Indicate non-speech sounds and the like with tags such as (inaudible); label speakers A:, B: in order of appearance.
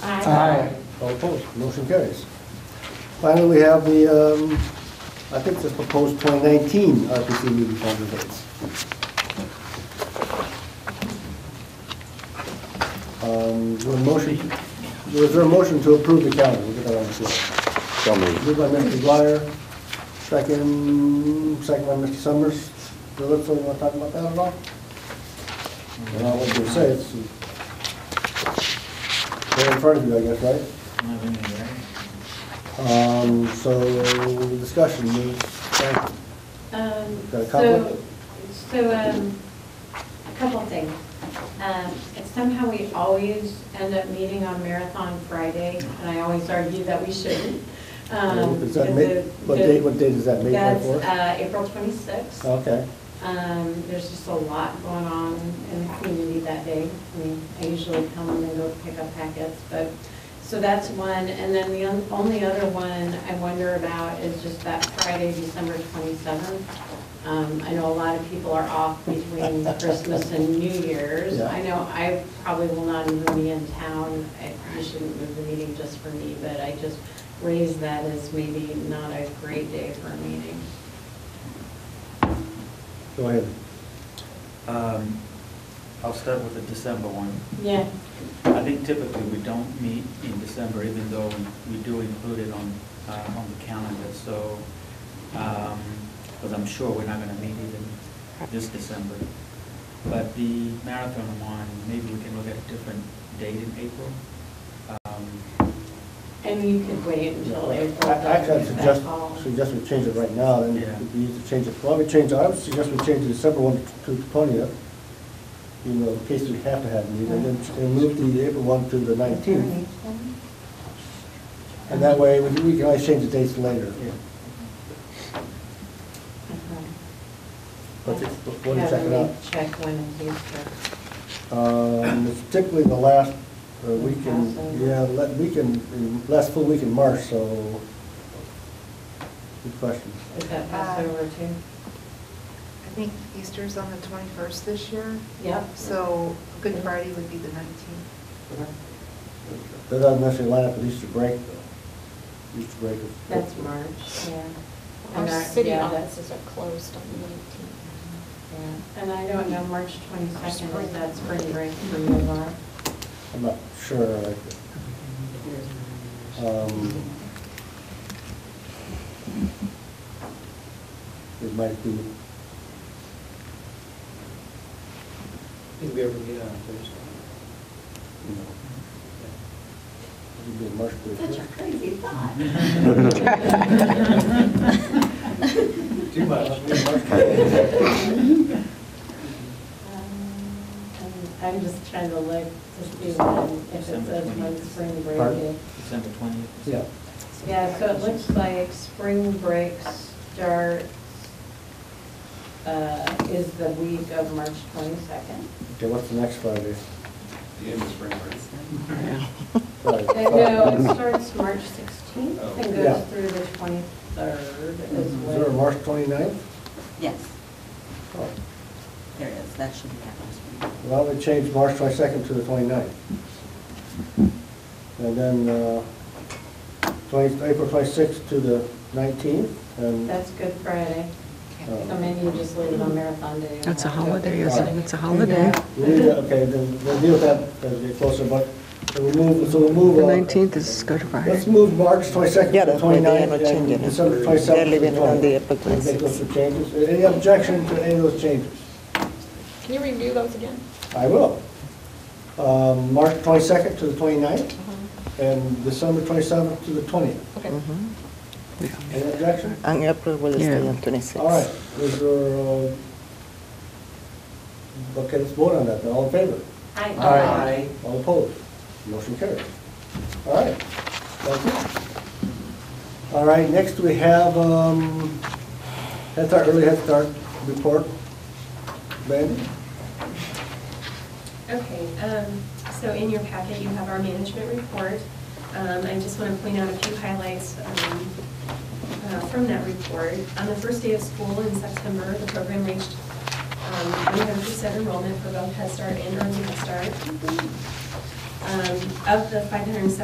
A: Aye.
B: All opposed, motion carries. Finally, we have the, um, I think the proposed 2019 RPC meeting calendar dates. Um, is there a motion, is there a motion to approve the calendar? We'll get that on the floor.
C: So moved.
B: Moved by Mr. Dwyer, second, second by Mr. Summers. Do you want to talk about that at all? Well, I was gonna say, it's, they're in front of you, I guess, right? Um, so, discussion, Ms. Franklin.
A: Um,
B: Got a
A: So,
B: conflict?
A: so, um, a couple of things. Um, it's Somehow we always end up meeting on Marathon Friday, and I always argue that we shouldn't. Um,
B: is that
A: because
B: May,
A: the-
B: what
A: the-
B: date, what date is that, May
A: That's
B: twenty-fourth? Oh,
A: uh, April 26th.
B: Okay,
A: Um, There's just a lot going on in the community that day. I mean, I usually come and then go pick up packets, but, so that's one. And then the on- only other one I wonder about is just that Friday, December 27th. Um, I know a lot of people are off between Christmas and New Year's.
B: Yeah.
A: I know I probably will not even be in town. I- You shouldn't move the meeting just for me, but I just raise that as maybe not a great day for a meeting.
B: go ahead.
D: Um, I'll start with the December one.
A: Yeah.
D: I think typically we don't meet in December, even though we- we do include it on, uh, on the calendar, so, because I'm sure we're not going to meet even this December. But the marathon one, maybe we can look at a different date in April. Um,
A: And you could wait until April.
B: I- Actually, I
A: to make that
B: suggest,
A: call.
B: suggest we change it right now, then
D: Yeah.
B: it'd be easy to change it, well, we change, I would suggest we change the December one to the twentieth, you know, in case we have to have a meeting, and then and move the April one to the nineteenth, and that way, we can we can always change the dates later.
D: yeah.
B: But
A: Okay.
B: it's- but we'll check it
A: Yeah, let
B: out.
A: me Uh-huh. Check when it is, but-
B: Um, it's Particularly the last uh, weekend,
A: Passover.
B: yeah, le- weekend, in- last full week in March, so, good question.
A: is that Passover too?
E: I think Easter's on the 21st this year.
A: Yep.
E: So Good Friday would be the 19th.
B: That doesn't necessarily line up with Easter break, though. Easter break is.
A: That's March, yeah.
F: Our
A: And I-
F: city
A: yeah,
F: offices are closed on the 19th.
A: that's- yeah. And I don't know, March twenty-second, is that spring break for you, Laura?
B: I'm not sure. Um, It might be,
G: Did we ever meet on Thursday?
B: you know, it'd be a March break.
A: Such a crazy thought.
G: Too much.
B: (laughs)
A: Um, I'm I'm just trying to look to see when, if it
D: December
A: says when
D: 20th.
A: spring break
B: Pardon?
A: is.
D: December twentieth.
B: Yeah.
A: Yeah, so it looks like spring break starts, uh, is the week of March 22nd.
B: Okay, what's the next Friday?
G: The end of spring break.
B: Friday,
A: Uh, No,
B: Friday.
A: it starts March 16th and
B: Yeah.
A: goes through the 23rd is
B: Is there a
A: when.
B: March 29th?
H: Yes,
B: Oh,
H: there is, that should be happening.
B: Well, we changed March 22nd to the 29th. And then uh, 20 April 26th to the 19th, and
A: That's Good Friday. So
B: uh,
A: maybe you just leave it on Marathon Day.
I: That's a holiday,
B: isn't
I: isn't
B: it?
I: it? It's a holiday.
B: we need to, okay, then we'll deal with that as we get closer, but we'll move, so we'll move.
I: The
B: uh,
I: 19th is Good
B: Let's
I: Friday.
B: move March 22nd
J: Yeah,
B: to the
J: that's why they
B: 29th,
J: are not changing
B: and
J: it.
B: December 27th.
J: They're leaving it on the April
B: We'll Make those two changes. Any objection to any of those changes?
F: Can you review those again?
B: I will. Um, March 22nd to the 29th, and December 27th to the 20th.
F: Okay.
B: Any objection?
J: And April will stay
I: Yeah.
J: on 26.
B: All right, is there, uh, okay, let's vote on that, then. all in favor?
A: Hi.
B: Aye. All opposed? Motion carried. All right, thank you. All right, next we have um, Head Start, Early Head Start report. Ben?
K: Okay, um, so in your packet, you have our management report. Um, I just want to point out a few highlights um, uh, from that report. On the first day of school in September, the program reached um, 100% enrollment for both Head Start and Early Head Start. Um, Of the 570